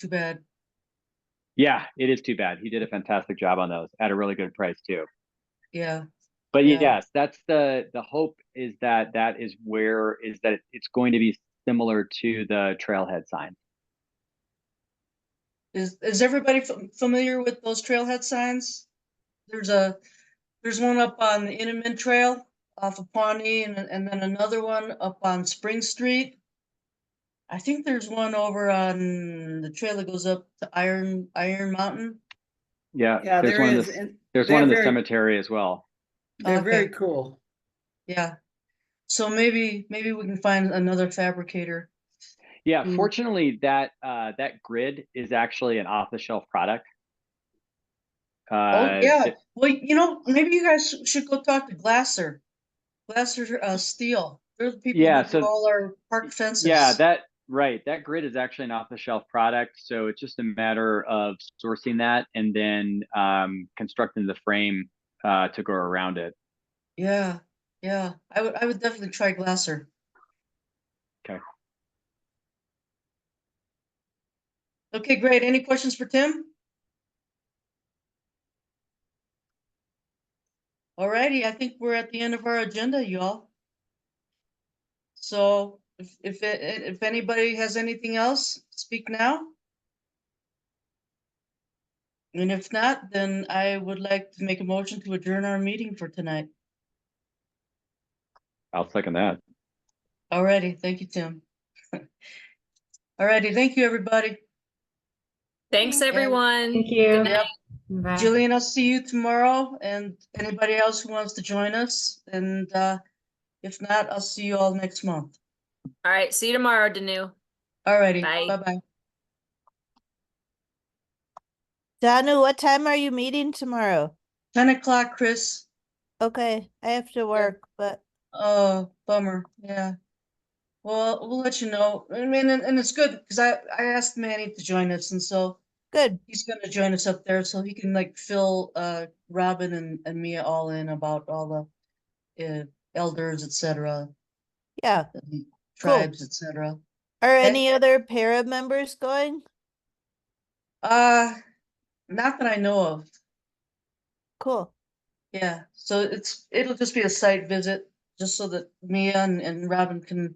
Too bad. Yeah, it is too bad. He did a fantastic job on those at a really good price too. Yeah. But Yeah. yes, that's the, the hope is that that is where is that it's going to be similar to the trailhead sign. Is, is everybody fam- familiar with those trailhead signs? There's a, there's one up on the Inman Trail off of Pawnee and, and then another one up on Spring Street. I think there's one over on the trail that goes up to Iron, Iron Mountain. Yeah. Yeah, there's there one in the is. c- and There's one they're in the very- cemetery as well. They're very Okay. cool. Yeah. So maybe, maybe we can find another fabricator. Yeah, Mm. fortunately, that uh, that grid is actually an off-the-shelf product. Oh, Uh, yeah. th- Well, you know, maybe you guys sh- should go talk to Glasser. Glasser, uh, Steel. They're the people Yeah, that do so- all our park fences. yeah, that right. That grid is actually an off-the-shelf product, so it's just a matter of sourcing that and then um, constructing the frame uh, to go around it. Yeah, yeah. I would, I would definitely try Glasser. 'Kay. Okay, great. Any questions for Tim? Alrighty, I think we're at the end of our agenda, y'all. So if, if, a- if anybody has anything else, speak now. And if not, then I would like to make a motion to adjourn our meeting for tonight. I'll second that. Alrighty, thank you, Tim. Alrighty, thank you, everybody. Thanks, Thank you. everyone. Thank you. Yep. Bye. Jillian, I'll see you tomorrow and anybody else who wants to join us. And uh, if not, I'll see you all next month. All right, see you tomorrow, Danu. Alrighty, Bye. bye-bye. Danu, what time are you meeting tomorrow? Ten o'clock, Chris. Okay, I have to work, but Oh, bummer, yeah. Well, we'll let you know. I mean, and, and it's good because I, I asked Manny to join us and so good. he's gonna join us up there so he can like fill uh Robin and, and Mia all in about all the uh, elders, et cetera, Yeah. the tribes, et cetera. Are Okay. any other para members going? Uh, not that I know of. Cool. Yeah, so it's, it'll just be a site visit, just so that Mia and, and Robin can,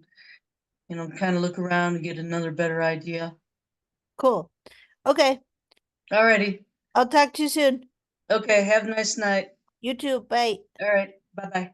you know, kind of look around and get another better idea. Cool. Okay. Alrighty, I'll talk to you soon. okay, have a nice night. You too. Bye. Alright, bye-bye.